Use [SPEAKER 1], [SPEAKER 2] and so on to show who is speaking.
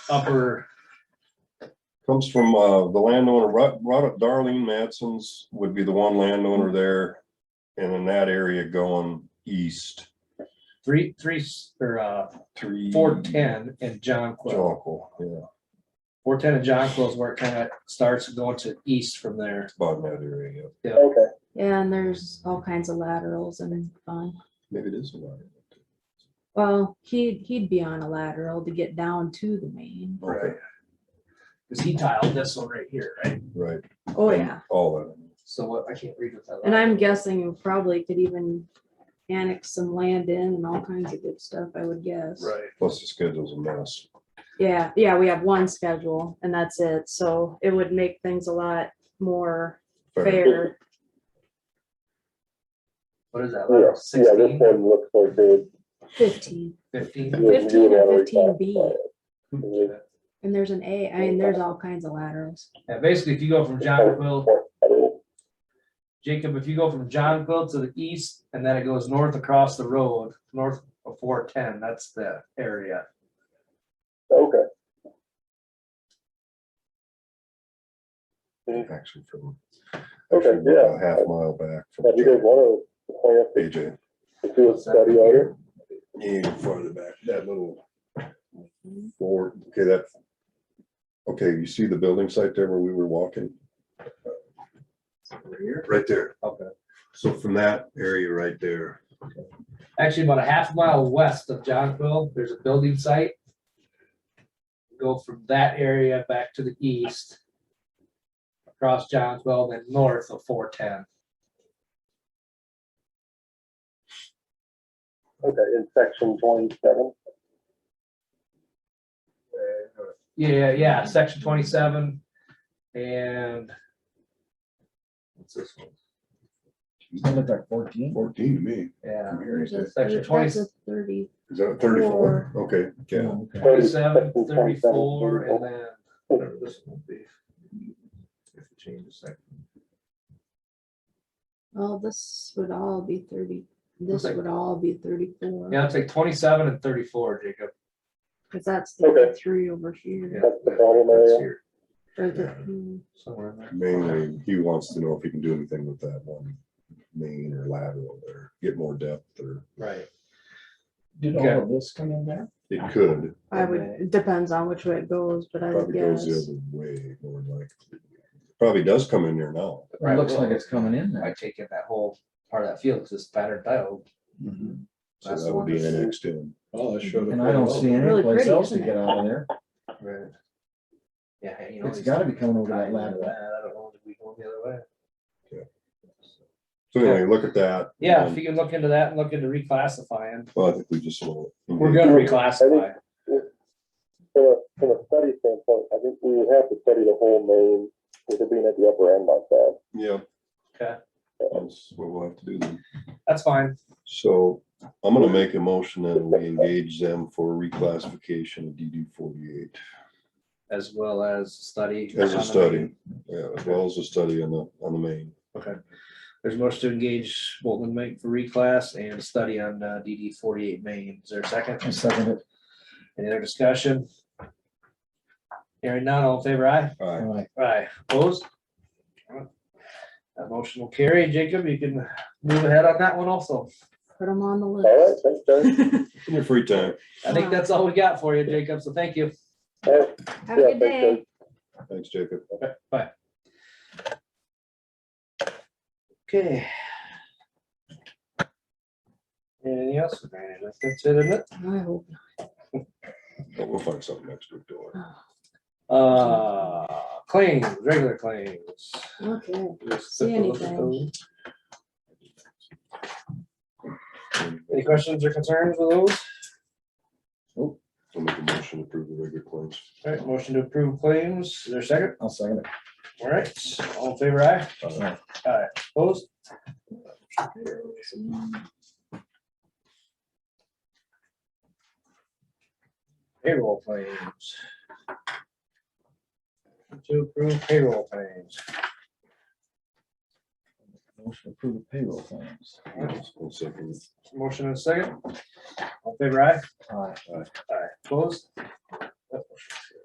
[SPEAKER 1] upper,
[SPEAKER 2] Comes from, uh, the landowner, Ro- Ro- Darlene Matson's would be the one
[SPEAKER 1] Hmm.
[SPEAKER 2] landowner there. And in that area going east,
[SPEAKER 1] three, three, s- or, uh,
[SPEAKER 2] three.
[SPEAKER 1] four ten and John Quill.
[SPEAKER 2] Jonquil, yeah,
[SPEAKER 1] Four ten and John Quill is where it kind of starts going to east from there.
[SPEAKER 2] about in that area, yeah.
[SPEAKER 3] Okay,
[SPEAKER 4] Yeah, and there's all kinds of laterals and fun.
[SPEAKER 2] Maybe it is. a lot.
[SPEAKER 4] Well, he, he'd be on a lateral to get down to the main.
[SPEAKER 2] Right,
[SPEAKER 1] Cause he tiled this one right here, right?
[SPEAKER 2] right.
[SPEAKER 4] Oh, yeah.
[SPEAKER 2] All of it.
[SPEAKER 1] So what, I can't read what that.
[SPEAKER 4] And I'm
[SPEAKER 1] line is.
[SPEAKER 4] guessing you probably could even annex some land in and all kinds of good stuff, I would guess.
[SPEAKER 1] Right.
[SPEAKER 2] Plus the schedule's a mess.
[SPEAKER 4] Yeah, yeah, we have one schedule and that's it. So it would make things a lot more fair.
[SPEAKER 1] What is that?
[SPEAKER 3] yeah,
[SPEAKER 1] line?
[SPEAKER 3] yeah, this
[SPEAKER 1] 16,
[SPEAKER 3] one looks like they.
[SPEAKER 4] Fifteen,
[SPEAKER 1] 15?
[SPEAKER 3] you- you
[SPEAKER 4] 15 or
[SPEAKER 3] would already
[SPEAKER 4] 15B.
[SPEAKER 3] classify it. Mhm.
[SPEAKER 4] and there's an A, I mean, there's all kinds of laterals.
[SPEAKER 1] Yeah, basically, if you go from John Quill, Jacob, if you go from John Quill to the east and then it goes north across the road, north of four ten, that's the area.
[SPEAKER 3] Okay,
[SPEAKER 2] Actually from.
[SPEAKER 3] Okay,
[SPEAKER 2] actually about
[SPEAKER 3] yeah.
[SPEAKER 2] a Half mile back from
[SPEAKER 3] now do you guys want to plan to-
[SPEAKER 2] AJ.
[SPEAKER 3] to do a study on it?
[SPEAKER 2] Yeah, farther back, that little four, okay, that. Okay, you see the building site there where we were walking?
[SPEAKER 1] Over here.
[SPEAKER 2] Right there.
[SPEAKER 1] Okay.
[SPEAKER 2] So from that area right there.
[SPEAKER 1] Actually, about a half mile west of John Quill, there's a building site. Go from that area back to the east. Across John Quill, then north of four ten.
[SPEAKER 3] Okay, in section twenty-seven.
[SPEAKER 1] Yeah, yeah, section twenty-seven and. What's this one?
[SPEAKER 5] That looked like fourteen.
[SPEAKER 2] Fourteen to me.
[SPEAKER 1] Yeah,
[SPEAKER 4] There's a
[SPEAKER 1] Section
[SPEAKER 4] thir-
[SPEAKER 1] 20.
[SPEAKER 4] That's a thirty.
[SPEAKER 2] Is that thirty-four? Okay, yeah.
[SPEAKER 5] Oh, okay.
[SPEAKER 1] twenty-seven, thirty-four, and then whatever this one will be. If it changes that.
[SPEAKER 4] Well, this would all be thirty, this
[SPEAKER 1] Okay.
[SPEAKER 4] would all be thirty-four,
[SPEAKER 1] Yeah, it's like twenty-seven and thirty-four, Jacob.
[SPEAKER 4] because that's
[SPEAKER 3] Okay.
[SPEAKER 4] thirty-three over
[SPEAKER 1] Yeah,
[SPEAKER 4] here.
[SPEAKER 3] That's the problem area.
[SPEAKER 1] that's here,
[SPEAKER 4] or the- hmm.
[SPEAKER 1] Somewhere in there.
[SPEAKER 2] Mainly, he wants to know if he can do anything with that one main or lateral there, get more depth or
[SPEAKER 1] Right.
[SPEAKER 5] Did all of this come in there?
[SPEAKER 2] it could,
[SPEAKER 4] I would,
[SPEAKER 1] Okay.
[SPEAKER 4] it depends on which way it goes, but I would
[SPEAKER 2] probably goes the
[SPEAKER 4] guess.
[SPEAKER 2] other way, more likely. Probably does come in there now.
[SPEAKER 5] It looks like it's coming in
[SPEAKER 1] I
[SPEAKER 5] there.
[SPEAKER 1] take it that whole part of that field, because it's patterned dial.
[SPEAKER 5] Mhm.
[SPEAKER 2] So
[SPEAKER 1] That's the
[SPEAKER 2] that would
[SPEAKER 1] one
[SPEAKER 2] be
[SPEAKER 1] that's-
[SPEAKER 2] annexed in.
[SPEAKER 6] Oh, that showed up.
[SPEAKER 5] And I don't see any
[SPEAKER 4] Really
[SPEAKER 5] place
[SPEAKER 4] pretty,
[SPEAKER 5] else to
[SPEAKER 4] isn't it?
[SPEAKER 5] get out of there.
[SPEAKER 1] Right. Yeah, you know.
[SPEAKER 5] It's
[SPEAKER 1] these
[SPEAKER 5] gotta be coming over that
[SPEAKER 1] guys,
[SPEAKER 5] ladder.
[SPEAKER 1] I don't know, did we go the other way?
[SPEAKER 2] So anyway, look at that.
[SPEAKER 1] Yeah, if
[SPEAKER 5] Mm.
[SPEAKER 2] Um,
[SPEAKER 1] you can look into that and look into reclassifying,
[SPEAKER 2] Well, I think we just. will-
[SPEAKER 1] we're gonna reclassify.
[SPEAKER 3] From a, from a study standpoint, I think we would have to study the whole main, with it being at the upper end like that.
[SPEAKER 2] Yeah.
[SPEAKER 1] Okay.
[SPEAKER 2] That's what we'll have to do then.
[SPEAKER 1] That's fine.
[SPEAKER 2] So I'm gonna make a motion that we engage them for reclassification of DD forty-eight
[SPEAKER 1] As well as study.
[SPEAKER 2] as
[SPEAKER 1] on
[SPEAKER 2] a
[SPEAKER 1] the
[SPEAKER 2] study, yeah, as well as a study on the, on the main.
[SPEAKER 1] There's much to engage Bolton Lake for reclass and study on uh, DD forty-eight main. Is there a
[SPEAKER 5] I
[SPEAKER 1] second?
[SPEAKER 5] second it.
[SPEAKER 1] Any other discussion? Hearing none, all in favor, aye?
[SPEAKER 2] All right,
[SPEAKER 5] All right.
[SPEAKER 1] Aye. Opposed? That motion will carry. Jacob, you can move ahead on that one also.
[SPEAKER 4] Put them on the
[SPEAKER 3] All right,
[SPEAKER 4] list.
[SPEAKER 3] thanks, Jerry.
[SPEAKER 2] in your free time.
[SPEAKER 1] I think that's all we got for you, Jacob, so thank you.
[SPEAKER 3] All right,
[SPEAKER 4] Have a
[SPEAKER 3] Yeah,
[SPEAKER 4] good
[SPEAKER 3] thanks,
[SPEAKER 4] day.
[SPEAKER 3] guys.
[SPEAKER 2] Thanks, Jacob.
[SPEAKER 1] Bye. Okay. Anything else? That's it, isn't it?
[SPEAKER 4] I hope
[SPEAKER 2] But We'll find something next week, don't worry.
[SPEAKER 4] not.
[SPEAKER 1] Uh, claims, regular claims.
[SPEAKER 4] Okay,
[SPEAKER 1] Just
[SPEAKER 4] See
[SPEAKER 1] took a look at
[SPEAKER 4] anything.
[SPEAKER 1] those. Any questions or concerns with those?
[SPEAKER 2] I'll make a motion to approve the regular claims.
[SPEAKER 1] All right, motion to approve claims. Is there a second?
[SPEAKER 5] I'll second it.
[SPEAKER 1] All right, all in favor, aye?
[SPEAKER 2] Uh,
[SPEAKER 5] Aye.
[SPEAKER 1] Aye. Opposed? Payroll claims. To approve payroll claims.
[SPEAKER 5] Motion to approve the payroll claims.
[SPEAKER 2] One second.
[SPEAKER 1] Motion and second. All in favor, aye?
[SPEAKER 5] All right.
[SPEAKER 1] Aye. Opposed? All